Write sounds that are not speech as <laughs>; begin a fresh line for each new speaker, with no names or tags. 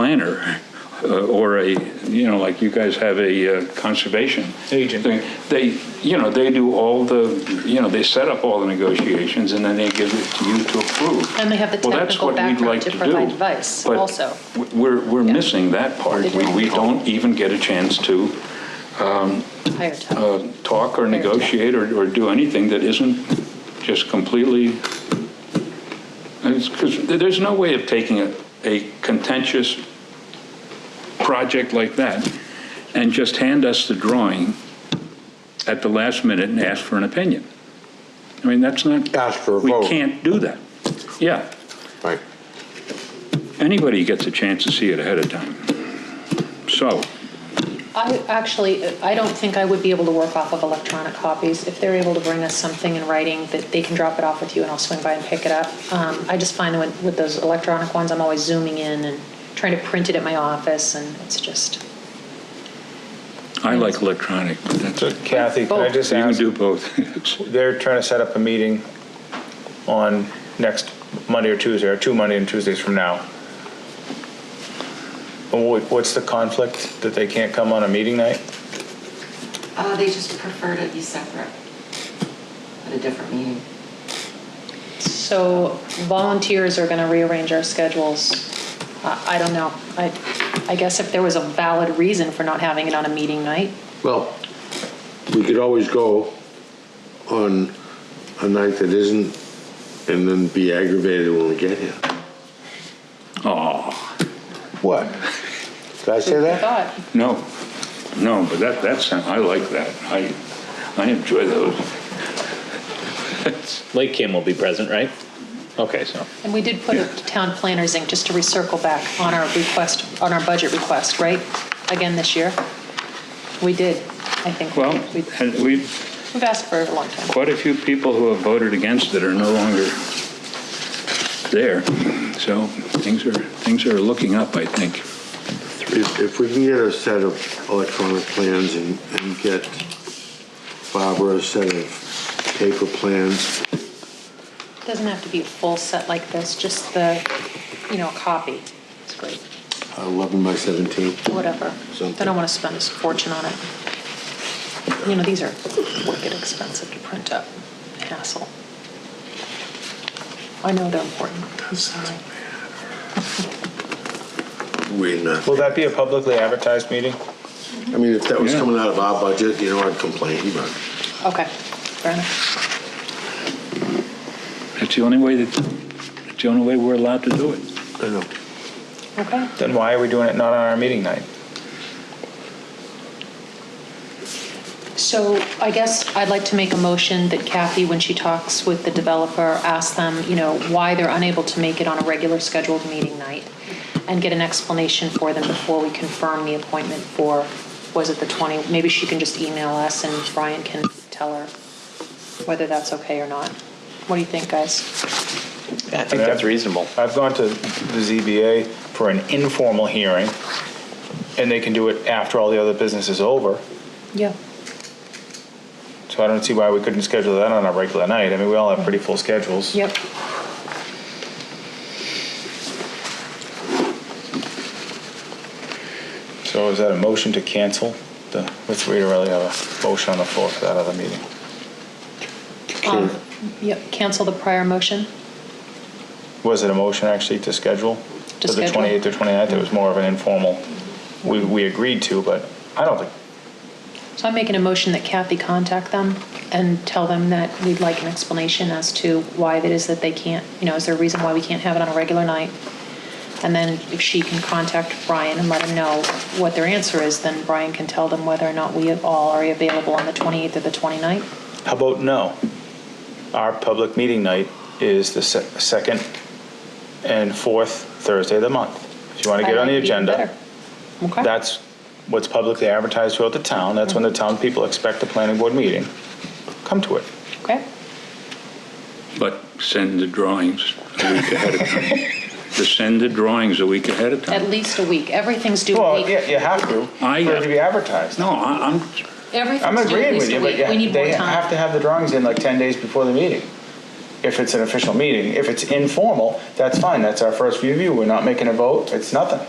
planner uh, or a, you know, like you guys have a uh, conservation.
Agent.
thing. They, you know, they do all the, you know, they set up all the negotiations and then they give it to you to approve.
And they have the
Well, that's
technical
what we'd
background
like
to
do,
provide advice
but
also.
w- We're, we're
Yeah.
missing that part.
They
We,
don't.
we don't even get a chance to
higher tone.
uh, talk or negotiate or, or do anything that isn't just completely, because there's no way of taking a, a contentious project like that and just hand us the drawing at the last minute and ask for an opinion. I mean, that's not.
Ask for a
We
vote.
can't do that. Yeah,
Right.
anybody gets a chance to see it ahead of time. So,
I actually, I don't think I would be able to work off of electronic copies. If they're able to bring us something in writing, that they can drop it off with you and I'll swing by and pick it up. Um, I just find with, with those electronic ones, I'm always zooming in and trying to print it at my office and it's just,
I like electronic, but that's,
So
you
Kathy, can I
Both.
just
can
ask,
do both. <laughs>
they're trying to set up a meeting on next Monday or Tuesday, or two Monday and Tuesdays from now. Wha- What's the conflict that they can't come on a meeting night?
Uh, they just prefer to be separate at a different meeting.
so volunteers are going to rearrange our schedules. I I don't know. I, I guess if there was a valid reason for not having it on a meeting night,
Well, we could always go on a night that isn't and then be aggravated when we get here.
Oh.
What? Did I say that?
but
No, no, but that, that's, I like that. I, I enjoy those.
Lake Kim will be present, right? Okay, so.
And we did put a town planners, Inc., just to recircle back, on our request, on our budget request, right? Again this year? We did, I think.
Well,
We-
and we,
We've asked for it a long time.
quite a few people who have voted against it are no longer there. So things are, things are looking up, I think.
If, if we can get a set of electronic plans and, and get Barbara a set of paper plans,
It Doesn't have to be a full set like this, just the, you know, copy. It's great,
11 by 17.
whatever. I
Something.
don't want to spend a fortune on it. You know, these are wicked expensive to print up, hassle. I know they're important, I'm sorry.
We uh, not.
Will that be a publicly advertised meeting?
I mean, if that was
Yeah.
coming out of our budget, you know, I'd complain, but
Okay, fair enough.
That's the only way that, that's the only way we're allowed to do it.
I know.
Okay.
Then why are we doing it not on our meeting night?
So I guess I'd like to make a motion that Kathy, when she talks with the developer, ask them, you know, why they're unable to make it on a regular scheduled meeting night and get an explanation for them before we confirm the appointment for, was it the 20? Maybe she can just email us and Brian can tell her whether that's okay or not. What do you think, guys?
I think that's reasonable.
I've gone to the ZBA for an informal hearing, and they can do it after all the other business is over.
Yeah.
So I don't see why we couldn't schedule that on a regular night. I mean, we all have pretty full schedules.
Yep.
So is that a motion to cancel the, let's read really have a motion on the floor for that other meeting.
Um, Yep, cancel the prior motion.
Was it a motion actually to schedule?
To
For the
schedule.
28th or 29th, it was more of an informal, we, we agreed to, but I don't think,
So I'm making a motion that Kathy contact them and tell them that we'd like an explanation as to why it is that they can't, you know, is there a reason why we can't have it on a regular night? And then if she can contact Brian and let him know what their answer is, then Brian can tell them whether or not we at all are available on the 28th or the 29th.
how about no? Our public meeting night is the se- second and fourth Thursday of the month. If you want to get on the agenda,
Okay.
that's what's publicly advertised throughout the town. That's when the
Mm-hmm.
town people expect the planning board meeting. Come to it.
Okay.
But send the drawings a week ahead of time. Just send the drawings a week ahead of
At
time.
least a week. Everything's due a
Well,
week.
yeah, you have to.
I-
For it to be advertised.
No, I- I'm,
Everything's
I'm
due at
agreeing
least
with
a
you, but
week. We
yeah,
need more
they have to
time.
have the drawings in like 10 days before the meeting. If it's an official meeting, if it's informal, that's fine. That's our first review. We're not making a vote. It's nothing.